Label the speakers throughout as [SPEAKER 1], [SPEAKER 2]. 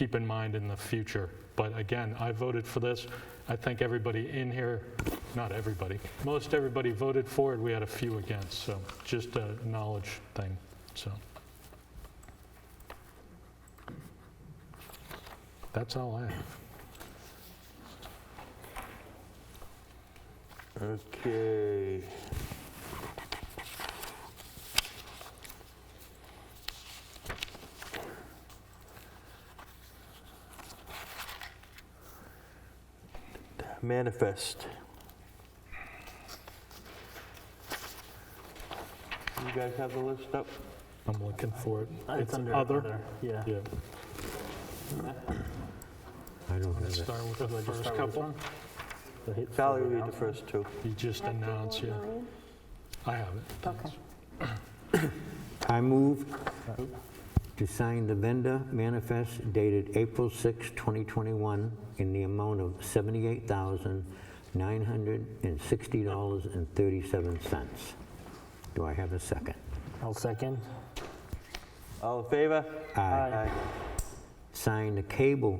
[SPEAKER 1] keep in mind in the future. But again, I voted for this. I think everybody in here, not everybody, most everybody voted for it. We had a few against, so just a knowledge thing, so. That's all I have.
[SPEAKER 2] Okay. Manifest. You guys have the list up?
[SPEAKER 1] I'm looking for it.
[SPEAKER 3] It's under other, yeah.
[SPEAKER 1] Yeah.
[SPEAKER 4] I don't have it.
[SPEAKER 1] Start with the
[SPEAKER 3] Let's
[SPEAKER 1] first
[SPEAKER 3] start with this
[SPEAKER 1] couple.
[SPEAKER 3] one. So hit
[SPEAKER 2] Valerie,
[SPEAKER 3] further
[SPEAKER 2] read
[SPEAKER 3] down.
[SPEAKER 2] the first two.
[SPEAKER 1] You just announced, yeah. I have it.
[SPEAKER 5] Okay.
[SPEAKER 4] I move to sign the vendor manifest dated April 6, 2021, in the amount of $78,960.37. Do I have a second?
[SPEAKER 3] I'll second.
[SPEAKER 2] All in favor?
[SPEAKER 3] Aye.
[SPEAKER 4] Sign the cable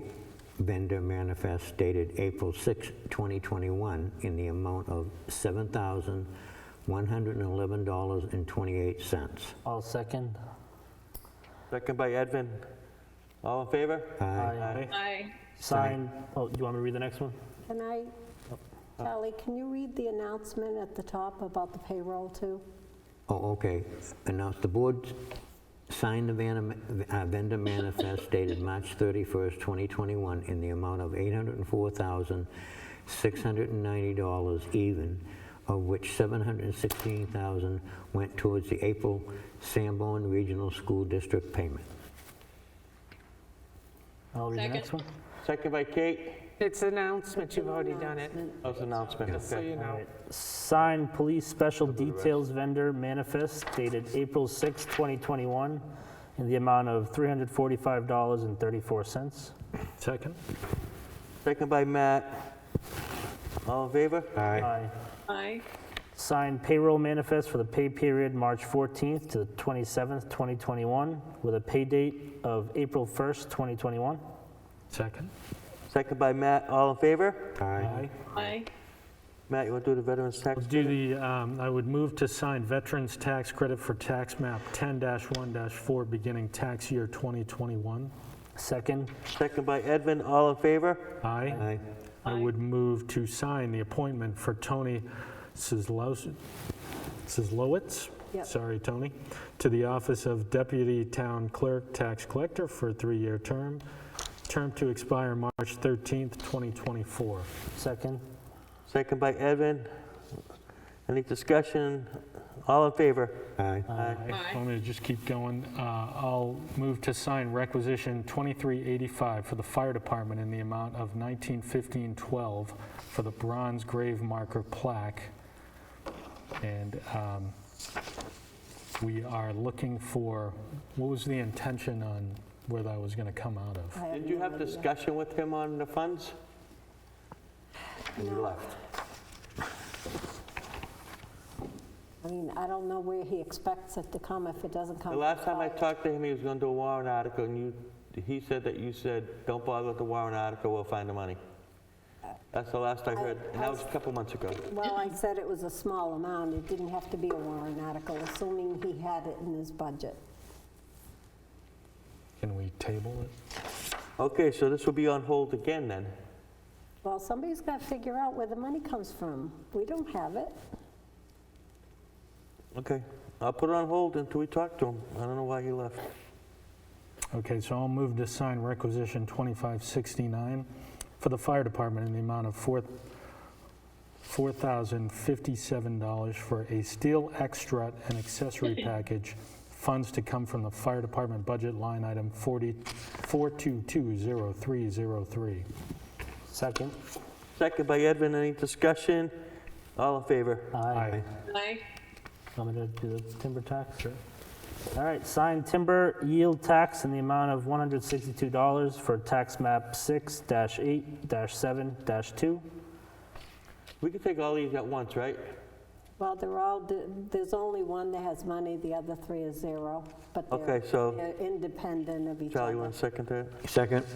[SPEAKER 4] vendor manifest dated April 6, 2021, in the amount of $7,111.28.
[SPEAKER 3] I'll second.
[SPEAKER 2] Second by Edvin. All in favor?
[SPEAKER 3] Aye.
[SPEAKER 6] Aye.
[SPEAKER 3] Sign, oh, you want me to read the next one?
[SPEAKER 5] Can I, Charlie, can you read the announcement at the top about the payroll too?
[SPEAKER 4] Oh, okay. Announce the board signed the van- uh, vendor manifest dated March 31st, 2021, in the amount of $804,690 even, of which $716,000 went towards the April Sanborn Regional School District payment.
[SPEAKER 3] I'll read the
[SPEAKER 6] Second.
[SPEAKER 3] next one.
[SPEAKER 2] Second by Kate.
[SPEAKER 7] It's announcement, you've already done it,
[SPEAKER 2] That was announcement,
[SPEAKER 7] just so
[SPEAKER 2] okay.
[SPEAKER 7] you know.
[SPEAKER 3] Sign police special details vendor manifest dated April 6, 2021, in the amount of $345.34.
[SPEAKER 1] Second?
[SPEAKER 2] Second by Matt. All in favor?
[SPEAKER 3] Aye.
[SPEAKER 6] Aye.
[SPEAKER 3] Sign payroll manifest for the pay period March 14th to the 27th, 2021, with a pay date of April 1st, 2021.
[SPEAKER 1] Second?
[SPEAKER 2] Second by Matt, all in favor?
[SPEAKER 4] Aye.
[SPEAKER 6] Aye.
[SPEAKER 2] Matt, you want to do the veterans tax?
[SPEAKER 8] Do the, um, I would move to sign Veterans Tax Credit for Tax Map 10-1-4 beginning tax year 2021.
[SPEAKER 3] Second,
[SPEAKER 2] Second by Edvin, all in favor?
[SPEAKER 8] Aye.
[SPEAKER 4] Aye.
[SPEAKER 8] I would move to sign the appointment for Tony Sislous- Sislowitz.
[SPEAKER 5] Yep.
[SPEAKER 8] Sorry, Tony, to the office of Deputy Town Clerk Tax Collector for a three-year term, term to expire March 13th, 2024.
[SPEAKER 3] second,
[SPEAKER 2] Second by Edvin. Any discussion? All in favor?
[SPEAKER 4] Aye.
[SPEAKER 2] Aye.
[SPEAKER 6] Aye.
[SPEAKER 1] I'm going to just keep going. Uh, I'll move to sign requisition 2385 for the fire department in the amount of 191512 for the bronze grave marker plaque. And um, we are looking for, what was the intention on where that was going to come out of?
[SPEAKER 5] I
[SPEAKER 2] Did you
[SPEAKER 5] no
[SPEAKER 2] have
[SPEAKER 5] idea.
[SPEAKER 2] discussion with him on the funds? And you left.
[SPEAKER 5] I mean, I don't know where he expects it to come if it doesn't come.
[SPEAKER 2] The last time I talked to him, he was going to do a warrant article, and you, he said that you said, "Don't bother with the warrant article, we'll find the money." That's the last I heard, and that was a couple months ago.
[SPEAKER 5] Well, I said it was a small amount. It didn't have to be a warrant article, assuming he had it in his budget.
[SPEAKER 1] Can we table it?
[SPEAKER 2] Okay, so this will be on hold again, then?
[SPEAKER 5] Well, somebody's got to figure out where the money comes from. We don't have it.
[SPEAKER 2] Okay, I'll put it on hold until we talk to him. I don't know why he left.
[SPEAKER 8] Okay, so I'll move to sign requisition 2569 for the fire department in the amount of four- $4,057 for a steel extra and accessory package, funds to come from the fire department budget line item 40 4220303.
[SPEAKER 3] second.
[SPEAKER 2] Second by Edvin, any discussion? All in favor?
[SPEAKER 3] Aye.
[SPEAKER 6] Aye.
[SPEAKER 3] Want me to do the timber tax? Sure. All right, sign timber yield tax in the amount of $162 for tax map 6-8-7-2.
[SPEAKER 2] We can take all these at once, right?
[SPEAKER 5] Well, they're all, there's only one that has money, the other three is zero, but
[SPEAKER 2] Okay,
[SPEAKER 5] they're
[SPEAKER 2] so-
[SPEAKER 5] they're independent of each other.
[SPEAKER 2] Charlie, you want to second that?
[SPEAKER 4] Second?